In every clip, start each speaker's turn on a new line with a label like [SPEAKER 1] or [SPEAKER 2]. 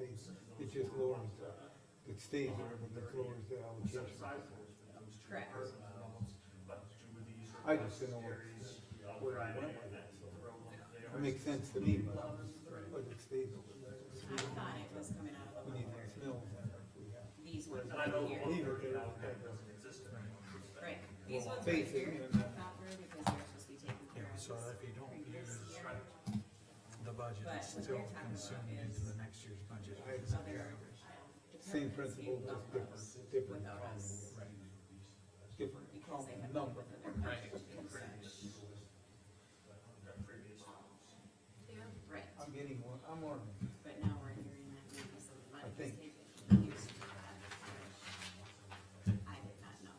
[SPEAKER 1] It just lowers the, it stays there, but it lowers the allocation.
[SPEAKER 2] Correct.
[SPEAKER 1] I just didn't know where, where it went with it. It makes sense to me, but, but it stays over there.
[SPEAKER 2] I thought it was coming out of
[SPEAKER 1] We need these mills if we have.
[SPEAKER 2] these ones over here.
[SPEAKER 1] Leave it there.
[SPEAKER 2] Right, these ones right
[SPEAKER 1] Basic,
[SPEAKER 2] here,
[SPEAKER 1] and, uh,
[SPEAKER 2] copper, because they're supposed to be taken care of.
[SPEAKER 3] So
[SPEAKER 2] this
[SPEAKER 3] if you don't
[SPEAKER 2] previous
[SPEAKER 3] use
[SPEAKER 2] year.
[SPEAKER 3] the budget, it's
[SPEAKER 2] But what
[SPEAKER 3] still
[SPEAKER 2] they're talking about is-
[SPEAKER 3] consumed
[SPEAKER 2] um,
[SPEAKER 3] into the next year's budget.
[SPEAKER 2] So there's.
[SPEAKER 1] Same
[SPEAKER 2] departments
[SPEAKER 1] principle,
[SPEAKER 2] being
[SPEAKER 1] just
[SPEAKER 2] built
[SPEAKER 1] different, different
[SPEAKER 2] Without
[SPEAKER 1] column,
[SPEAKER 2] us,
[SPEAKER 1] different
[SPEAKER 2] because
[SPEAKER 1] column
[SPEAKER 2] they have.
[SPEAKER 1] number.
[SPEAKER 2] Right,
[SPEAKER 1] I'm getting one, I'm learning.
[SPEAKER 2] but now we're hearing that maybe some of the money
[SPEAKER 1] I
[SPEAKER 2] was
[SPEAKER 1] think-
[SPEAKER 2] taken used for that. I did not know.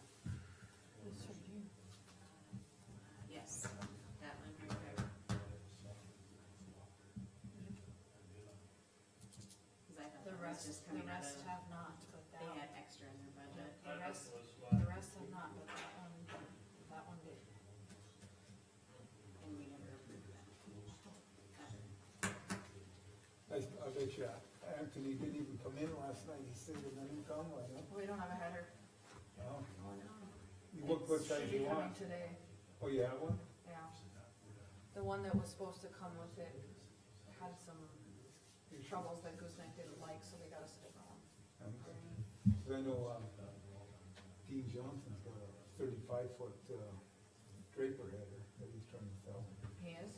[SPEAKER 2] Yes, that one right there. Cause I thought that
[SPEAKER 4] The
[SPEAKER 2] was
[SPEAKER 4] rest,
[SPEAKER 2] just
[SPEAKER 4] the
[SPEAKER 2] coming out
[SPEAKER 4] rest
[SPEAKER 2] of,
[SPEAKER 4] have not, but that,
[SPEAKER 2] they had extra in their budget.
[SPEAKER 4] the rest, the rest have not, but that one, that one did.
[SPEAKER 2] And we never approved that.
[SPEAKER 1] I, I bet you Anthony didn't even come in last night, he said he didn't come, I don't
[SPEAKER 4] We don't have a header.
[SPEAKER 1] know.
[SPEAKER 2] Oh, no.
[SPEAKER 1] You What website
[SPEAKER 4] Should
[SPEAKER 1] do you
[SPEAKER 4] be coming
[SPEAKER 1] want?
[SPEAKER 4] Today,
[SPEAKER 1] Oh, you have one?
[SPEAKER 4] yeah. The one that was supposed to come with it had some troubles that Gooseneck didn't like, so they got us a different one.
[SPEAKER 1] Okay. 'Cause I know, um, Dean Johnson's got a thirty-five foot, uh, draper header that he's trying to sell.
[SPEAKER 4] He is,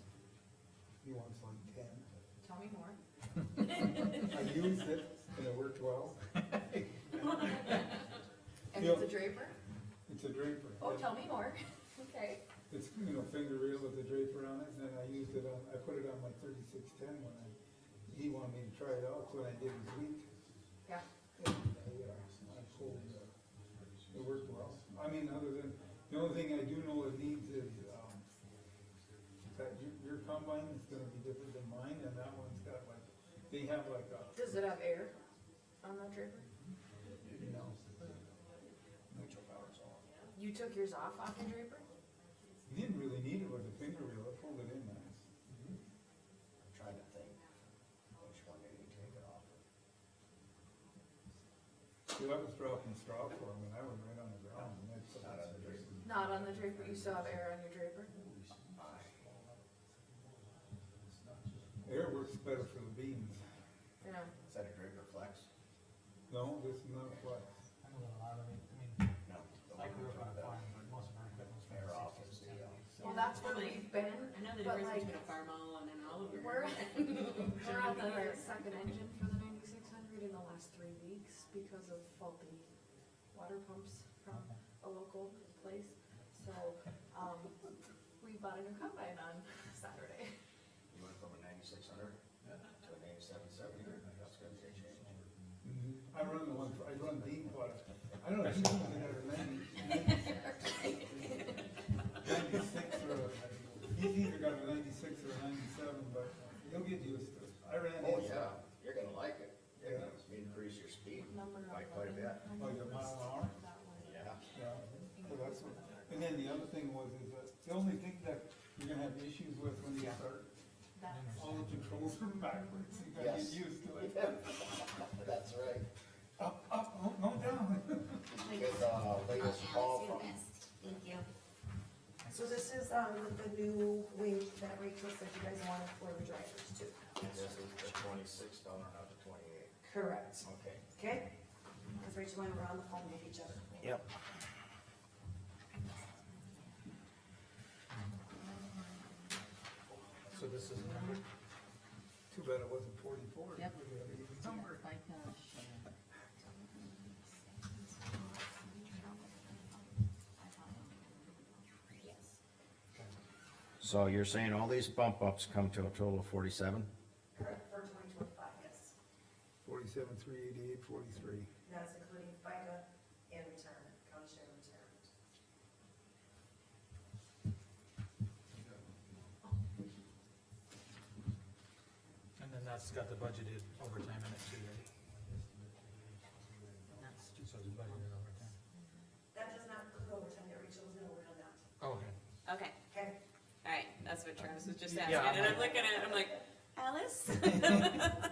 [SPEAKER 1] He wants like ten.
[SPEAKER 4] tell me more.
[SPEAKER 1] I used it and it worked well.
[SPEAKER 4] And it's
[SPEAKER 1] Yeah.
[SPEAKER 4] a draper?
[SPEAKER 1] It's a draper.
[SPEAKER 4] Oh, tell me more. Okay.
[SPEAKER 1] It's, you know, finger reel with the draper on it, and then I used it on, I put it on my thirty-six ten when I, he wanted me to try it out, so I did his week.
[SPEAKER 4] Yeah,
[SPEAKER 1] And I, uh, I pulled, uh, it worked well. I mean, other than, the only thing I do know it needs is, um, that your, your combine is gonna be different than mine, and that one's got like, they have like a,
[SPEAKER 4] does it have air on that draper?
[SPEAKER 1] you know,
[SPEAKER 4] You took yours off off your draper?
[SPEAKER 1] you didn't really need it with a finger reel, it pulled it in nice.
[SPEAKER 5] Trying to think, which one did he take it off of?
[SPEAKER 1] See, I was dropping straw for him, and I was right on the ground, and that's.
[SPEAKER 5] Not on the draper.
[SPEAKER 4] Not on the draper, you still have air on your draper?
[SPEAKER 1] Air works better for the beans.
[SPEAKER 4] Yeah.
[SPEAKER 5] Is that a Draper Flex?
[SPEAKER 1] No, this is not flex.
[SPEAKER 6] I know that a lot of it, I mean,
[SPEAKER 5] No. the
[SPEAKER 6] I grew
[SPEAKER 5] one
[SPEAKER 6] up on a
[SPEAKER 5] with the-
[SPEAKER 6] farm, but most of our equipment's from
[SPEAKER 5] Air
[SPEAKER 6] the
[SPEAKER 5] off
[SPEAKER 6] sixties,
[SPEAKER 5] is the, uh,
[SPEAKER 6] seventies.
[SPEAKER 4] Well, that's where we've been,
[SPEAKER 2] I know the
[SPEAKER 4] But
[SPEAKER 2] difference
[SPEAKER 4] like-
[SPEAKER 2] between a farm all and an Oliver.
[SPEAKER 4] We're- we're on the second engine for the ninety-six hundred in the last three weeks because of faulty water pumps from a local place. So, um, we bought a new combine on Saturday.
[SPEAKER 5] You went from a ninety-six hundred to an eighty-seven seventy, that's gonna be a change.
[SPEAKER 1] Mm-hmm. I run the one, I run bean water. I don't know, if you know, they got a ninety. Ninety-six or, a- he's either got a ninety-six or a ninety-seven, but he'll get used to it. I ran.
[SPEAKER 5] Oh,
[SPEAKER 1] his-
[SPEAKER 5] yeah, you're gonna like it, you're gonna increase your speed
[SPEAKER 4] Number
[SPEAKER 5] by quite a bit,
[SPEAKER 1] Like a mile an hour.
[SPEAKER 4] That one.
[SPEAKER 5] yeah.
[SPEAKER 1] Yeah, so that's what, and then the other thing was, is that the only thing that you're gonna have issues with when you start,
[SPEAKER 4] That's,
[SPEAKER 1] all the controls from backwards, you gotta get
[SPEAKER 5] Yes.
[SPEAKER 1] used to it.
[SPEAKER 5] That's right.
[SPEAKER 1] Up, up, no, no down.
[SPEAKER 5] Did you get the uh, latest call from,
[SPEAKER 2] Thank you.
[SPEAKER 7] So this is, um, the new wing that Rachel said you guys wanted for the drivers too.
[SPEAKER 5] this is the twenty-six dollar, not the twenty-eight,
[SPEAKER 7] Correct,
[SPEAKER 5] okay.
[SPEAKER 7] okay? Cause Rachel and I were on the phone with each other.
[SPEAKER 5] Yep.
[SPEAKER 1] So this is number? Too bad it wasn't forty-four.
[SPEAKER 2] Yep.
[SPEAKER 5] So you're saying all these bump ups come to a total of forty-seven?
[SPEAKER 7] Correct, for twenty twenty-five, yes.
[SPEAKER 1] Forty-seven, three eighty-eight, forty-three.
[SPEAKER 7] That's including FICA and retirement, county share retirement.
[SPEAKER 3] And then that's got the budgeted overtime in it too, right? So it's budgeted overtime.
[SPEAKER 7] That does not include overtime that Rachel was gonna work on that,
[SPEAKER 6] Oh,
[SPEAKER 3] Okay.
[SPEAKER 2] Okay,
[SPEAKER 7] okay?
[SPEAKER 2] alright, that's what Travis was just
[SPEAKER 3] Yeah,
[SPEAKER 2] asking,
[SPEAKER 3] I'm
[SPEAKER 2] and I'm
[SPEAKER 3] like-
[SPEAKER 2] looking at it, I'm like, Alice?